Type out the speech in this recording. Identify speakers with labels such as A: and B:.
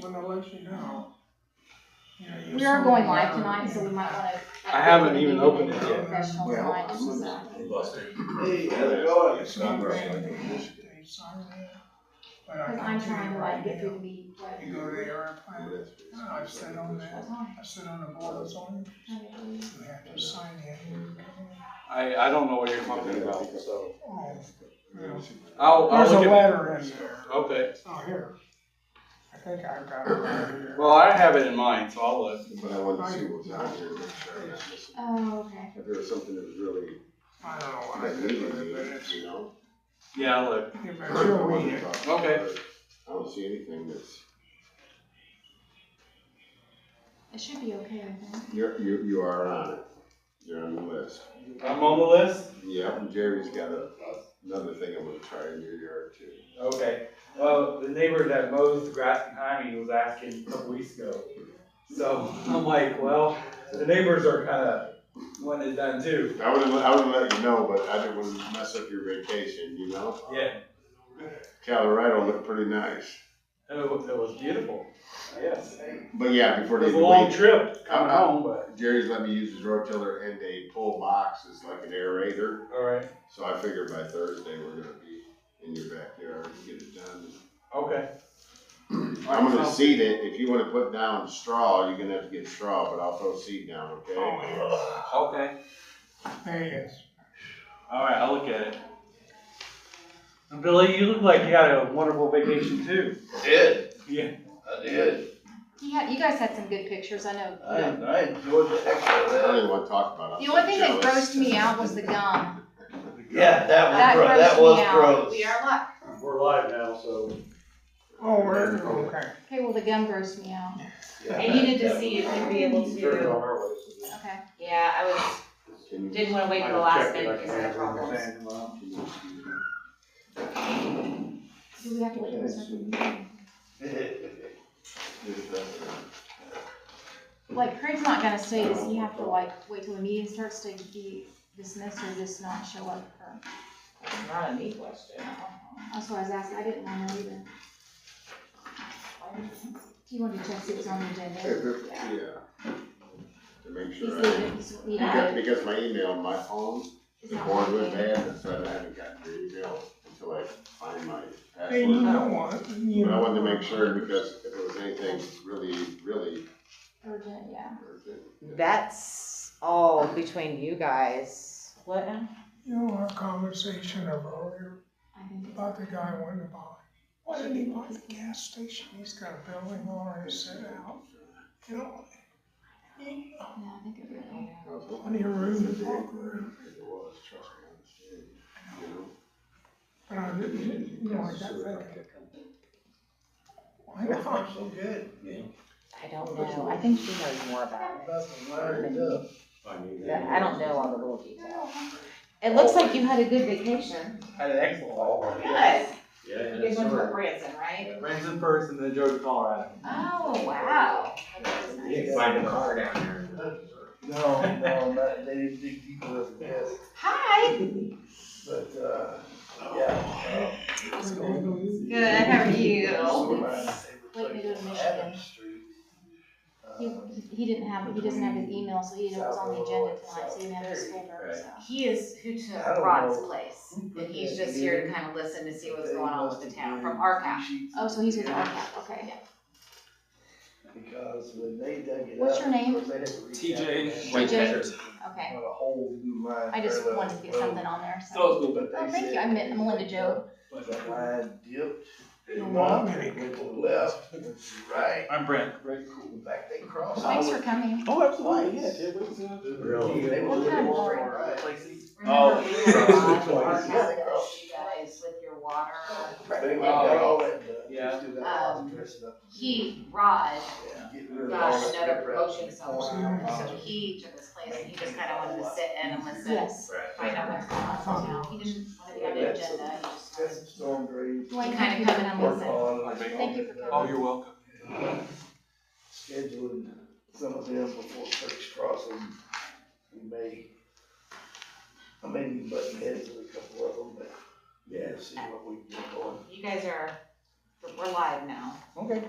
A: when I let you know. You know, you're
B: We are going
A: sorting
B: live
A: out.
B: tonight, so we might wanna.
C: I haven't even opened it
A: yet.
B: Professional
D: Well,
B: tonight,
D: I'm
B: just
D: looking
B: so.
D: at
A: Hey,
D: how's it going?
A: It's not
D: Number
A: great.
D: eight.
A: They signed me, but I
B: Cause I'm
A: can't
B: trying
A: do
B: to
A: it
B: like
A: right
B: get through
A: now.
B: the meat, but.
A: You go to the airplane,
D: it.
A: I've said on that,
B: That's fine.
A: I sit on the board that's on it,
B: Okay.
A: you have to sign in.
C: I, I don't know what you're talking about.
A: Oh, well,
C: I'll, I'll
A: There's a
C: look at,
A: letter in there,
C: okay.
A: it's not here. I think I've got it right here.
C: Well, I have it in mind, so I'll look.
D: But I wanted to see what was out here, to make sure I'm not missing.
B: Oh, okay.
D: If there was something that was really,
A: I don't know what I
D: that
A: did with it,
D: needed,
A: but it's,
D: you know?
C: Yeah, I'll look.
A: yeah,
D: I
A: but you'll read
D: wanted
A: it.
D: to talk.
C: Okay.
D: I don't see anything that's,
B: It should be okay, I think.
D: you're, you, you are on it. You're on the list.
C: I'm on the list?
D: Yeah, and Jerry's got a, another thing I'm gonna try in your yard too.
E: Okay, well, the neighbor that mows the grass behind me was asking a couple weeks ago. So I'm like, well, the neighbors are kinda wanting it done too.
D: I would've, I would've let you know, but I didn't wanna mess up your vacation, you know?
E: Yeah,
D: Colorado looked pretty nice.
C: It was, it was beautiful.
E: yes.
D: But yeah, before
C: It
D: they
C: was a
D: even
C: long
D: leave,
C: trip coming
D: Uh-uh.
C: home, but.
D: Jerry's let me use his rotiller and a pull box. It's like an aerator.
E: Alright,
D: So I figure by Thursday we're gonna be in your backyard and get it done.
E: okay.
D: I'm gonna seed it. If you wanna put down straw, you're gonna have to get straw, but I'll throw seed down, okay?
A: Oh,
C: Okay,
A: There it is.
C: all right, I'll look at it. And Billy, you look like you had a wonderful vacation too.
F: Did.
C: Yeah.
F: I did.
B: You had, you guys had some good pictures, I know.
F: I, I enjoyed the heck out of
D: I don't
F: that.
D: even wanna talk about it.
B: The
D: I'm
B: only thing that
D: jealous.
B: grossed me out was the gum.
F: Yeah,
B: That grossed
F: that was, gro- that
B: me
F: was
B: out.
F: gross.
B: We are live.
E: We're live now, so.
A: Oh, we're, okay.
B: Okay, well, the gum grossed me out.
F: Yeah,
G: I needed to
F: that-
G: see if you'd be able
E: Turned
G: to,
E: on our way, so just-
B: Okay.
G: yeah, I was,
D: Can you-
G: didn't wanna wait for the last minute because of the problems.
D: can you see that?
B: Do we have to wait for something?
D: This, that,
B: Like Craig's not gonna stay, so you have to like wait till the meeting starts to be dismissed or just not show up for.
G: Not a me question.
B: That's what I was asking, I didn't wanna leave it. Do you want to check see what's on the
D: that. If
B: agenda?
D: it- Yeah. To make
B: He's
D: sure I,
B: leaving, he's leaving.
D: because, because my email, on my phone,
B: It's
D: the
B: not
D: board was
B: working.
D: bad, so I haven't gotten your email until I find my password.
A: Hey, you know what? You
D: But I
A: know-
D: wanted to make sure because if it was anything really, really
B: Urgent, yeah.
D: urgent.
H: That's all between you guys. What now?
A: You know, our conversation of earlier
B: I think it's-
A: about the guy wanting to buy, why didn't he buy the gas station? He's got a building already set out, you know? He-
B: yeah, I think it really.
D: I was hoping-
A: Plenty of room to walk around.
D: It was, trust me, I understand. You know?
A: But I didn't, you know, I got thinking, why not?
F: So good.
H: I don't know. I think she knows more about it. That- I don't know all the little details. It looks like you had a good vacation.
C: Had an excellent haul.
G: Good.
F: Yeah.
G: You guys went to Branson, right?
C: Branson first and then drove to Colorado.
G: Oh, wow. That was nice.
E: Find a car down there.
F: No, no, not, they didn't dig deep enough for this,
G: Hi.
F: but, uh, yeah.
G: Good, how are you?
B: Wait, we go to Michigan. He,
F: Michigan.
B: he- he didn't have, he doesn't have his email, so he didn't know what's on the agenda tonight, so he didn't have his folder, so.
G: He is who took
F: I don't
G: Rod's
F: know.
G: place, and he's just here to kind of listen to see what's going on with the town from our
F: our
G: couch.
B: Oh, so he's with RCAP, okay.
F: Because when they dug it up.
B: What's your name?
F: they had to reach out
C: TJ.
F: and-
B: Whitehead. Okay,
F: On a whole new line.
B: I just
F: parallel
B: wanted to get
F: road,
B: something on there, so.
C: So it's
F: but they
B: Oh, thank
F: said
B: you. I met Melinda Joe.
F: But the line dipped.
A: You're
F: went
A: wrong.
F: up, Went to the left, went to the right,
C: I'm Brent.
F: right, cool, back they crossed.
B: Thanks for coming.
C: Oh,
F: absolutely, yeah,
E: Really?
F: They were
B: What
F: looking
B: kind of
F: more
B: water?
F: right.
G: Remember
C: Oh.
G: we were on
E: Twice.
G: our couch,
F: Yeah.
G: you guys with your water.
F: They went down all that, uh,
C: Yeah.
F: just do that while
G: Um,
F: dressing up.
G: He, Rod,
F: Yeah, getting rid of all
G: got
F: that
G: another
F: crap.
G: promotion somewhere,
F: Wow.
G: so he took his place, and he just kinda wanted to sit in and listen,
B: Yes.
G: find out what's going on in town. He didn't want to be on the agenda, he
F: Got
G: just kinda
F: some storm drains.
B: Do I
G: Kinda
B: have to
G: coming
B: come
G: on
B: in
F: Work
B: and listen?
F: on.
B: Thank you for coming.
C: Oh, you're welcome.
F: Scheduling some of them before Turkish Crossing, we may, I may be butting heads with a couple of them, but yeah, see what we can get going.
G: You guys are, we're live now.
C: Okay.